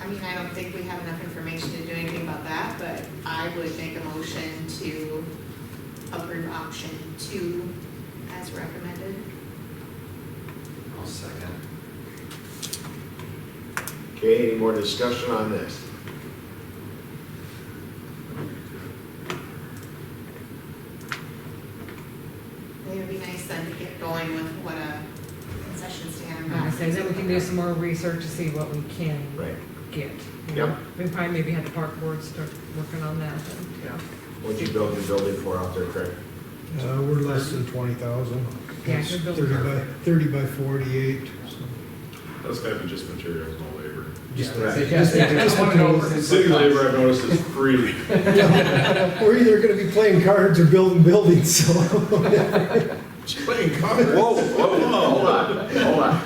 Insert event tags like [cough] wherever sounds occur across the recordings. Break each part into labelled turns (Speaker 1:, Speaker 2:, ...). Speaker 1: I mean, I don't think we have enough information to do anything about that, but I would make a motion to approve option two as recommended.
Speaker 2: I'll second.
Speaker 3: Okay, any more discussion on this?
Speaker 1: It would be nice then to get going with what a concession stand.
Speaker 4: I say that we can do some more research to see what we can
Speaker 3: Right.
Speaker 4: get. you know.
Speaker 3: Yep.
Speaker 4: We probably maybe had the park board start working on that then, too.
Speaker 3: What'd you build the building for out there, Craig?
Speaker 5: Uh, we're less than twenty thousand.
Speaker 4: Yeah,
Speaker 5: It's
Speaker 4: you're building
Speaker 5: Thirty by,
Speaker 4: perfect.
Speaker 5: thirty by forty-eight, so.
Speaker 6: That's gotta be just materials, no labor.
Speaker 3: Yeah,
Speaker 5: Just-
Speaker 3: right.
Speaker 5: just- just materials.
Speaker 6: City labor, I've noticed, is [laughs] free.
Speaker 5: We're either gonna be playing cards or building buildings, [laughs] so.
Speaker 2: Playing
Speaker 3: Whoa, whoa, Oh, hold on, hold on.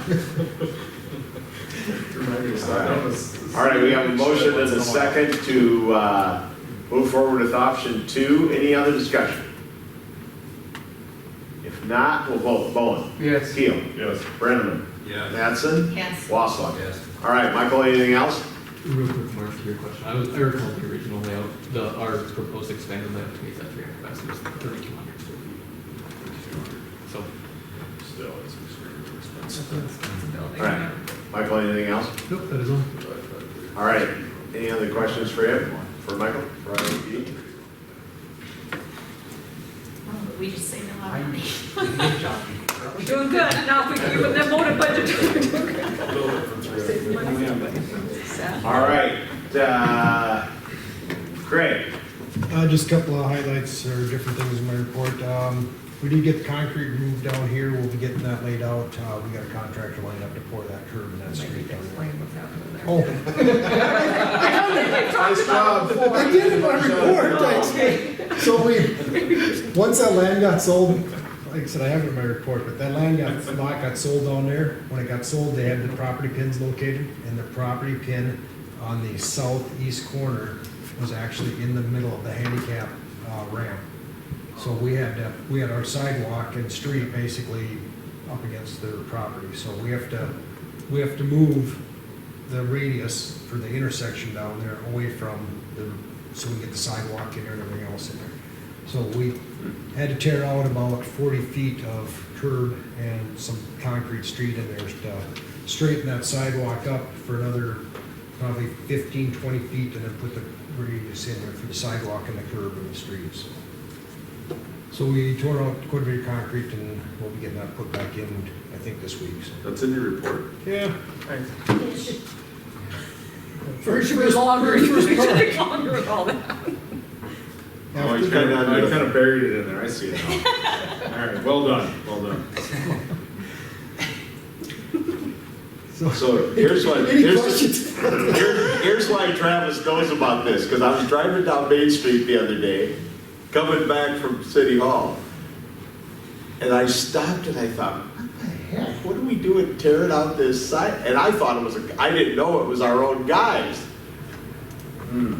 Speaker 3: All right, we have a motion and a second to, uh, move forward with option two. Any other discussion? If not, we'll vote. Bowen?
Speaker 7: Yes.
Speaker 3: Keel?
Speaker 6: Yes.
Speaker 3: Brenneman?
Speaker 2: Yeah.
Speaker 3: Mattson?
Speaker 1: Yes,
Speaker 3: Wassler?
Speaker 2: Yes.
Speaker 3: All right, Michael, anything else?
Speaker 7: Real quick, Mark, to your question, I was, I recall the original layout, the, our proposed expanded layout to meet that three hundred capacity was thirty-two hundred square feet. So,
Speaker 6: Still, it's extremely expensive.
Speaker 3: All right. Michael, anything else?
Speaker 7: nope, that is all.
Speaker 3: All right, any other questions for him, for E Michael?
Speaker 1: Oh, but we just saved a lot of money.
Speaker 4: We're doing good, now if we keep the voted budget.
Speaker 3: All right, uh, Craig?
Speaker 5: Uh, just a couple of highlights or different things in my report. Um, we did get the concrete moved down here, we'll be getting that laid out. Uh, we got a contractor lined up to pour that curb and that street down there.
Speaker 4: Explain what's happening there.
Speaker 5: Oh,
Speaker 6: Oh.
Speaker 3: Nice job.
Speaker 5: I did in my report, thanks. So we, once that land got sold, like I said, I have it in my report, but that land got, lot got sold down there. When it got sold, they had the property pins located, and the property pin on the southeast corner was actually in the middle of the handicap uh, ramp. So we had, to- we had our sidewalk and street basically up against their property, so we have to, we have to move the radius for the intersection down there away from the, so we get the sidewalk in there and everything else in there. So we had to tear out about forty feet of curb and some concrete street in there to straighten that sidewalk up for another probably 15, 20 feet and then put the radius in there for the sidewalk and the curb and the street, so. So we tore out quite a bit of concrete and we'll be getting that put back in, I think, this week, so.
Speaker 6: That's in your report.
Speaker 5: Yeah.
Speaker 1: It should
Speaker 5: First,
Speaker 4: We're [laughs] longer, [laughs]
Speaker 5: [laughs]
Speaker 4: you should have longer with all that.
Speaker 6: Oh, I kind of, I kind of buried it in there, I see it now. [laughs] All right, well done, well [laughs] done.
Speaker 3: So here's what,
Speaker 5: Any
Speaker 3: here's,
Speaker 5: questions?
Speaker 3: here- here's why Travis knows about this, because I was driving down Main Street the other day, coming back from City Hall. And I stopped and I thought, what the heck, what are we doing tearing out this side? And I thought it was, a- I didn't know it was our own guys.
Speaker 6: Hmm.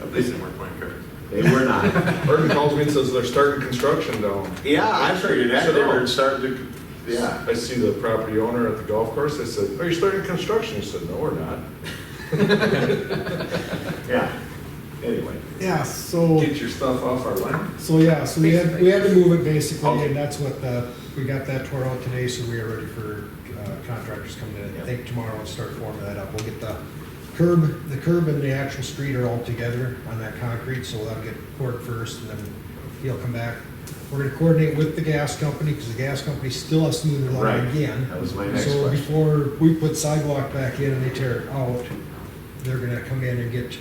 Speaker 6: At least it weren't my car.
Speaker 3: They were not.
Speaker 8: Urban calls me and says they're starting construction down.
Speaker 3: Yeah, I figured that, they were starting to, yeah.
Speaker 8: I see the property owner at the golf course, I said, are you starting construction? He said, no, we're not.
Speaker 3: [laughs] Yeah, anyway.
Speaker 5: Yeah, so,
Speaker 8: Get your stuff off our land.
Speaker 5: so yeah, so we had, we had to move it basically, and that's what the, we got that tore out today, so we are ready for uh, contractors coming in. I think tomorrow and start forming that up. We'll get the curb, the curb and the actual street are all together on that concrete, so that'll get poured first, and then he'll come back. We're gonna coordinate with the gas company, because the gas company still has to move the line
Speaker 3: Right.
Speaker 5: again.
Speaker 3: That was my next
Speaker 5: So
Speaker 3: question.
Speaker 5: before we put sidewalk back in and they tear it out, they're gonna come in and get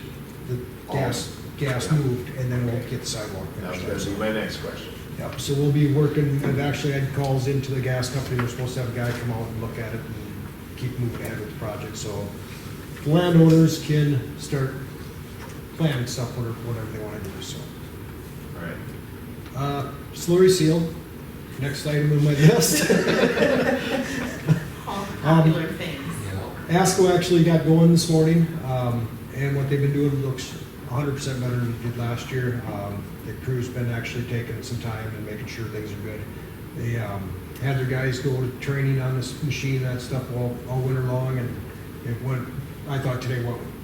Speaker 5: the gas, gas moved, and then we'll get the sidewalk
Speaker 3: That was
Speaker 5: finished.
Speaker 3: gonna be my next question.
Speaker 5: Yep, so we'll be working, I've actually had calls into the gas company, we're supposed to have a guy come out and look at it and keep moving ahead with the project, so the landowners can start planning stuff, whatever, whatever they wanna do, so.
Speaker 3: All right.
Speaker 5: Uh, slurry seal, next item on my [laughs] list.
Speaker 1: all popular things.
Speaker 5: ASCO actually got going this morning, um, and what they've been doing looks hundred percent better than it did last year. Um, the crew's been actually taking some time and making sure things are good. They, um, had their guys go to training on this machine, that stuff all, all winter long, and it went, I thought today went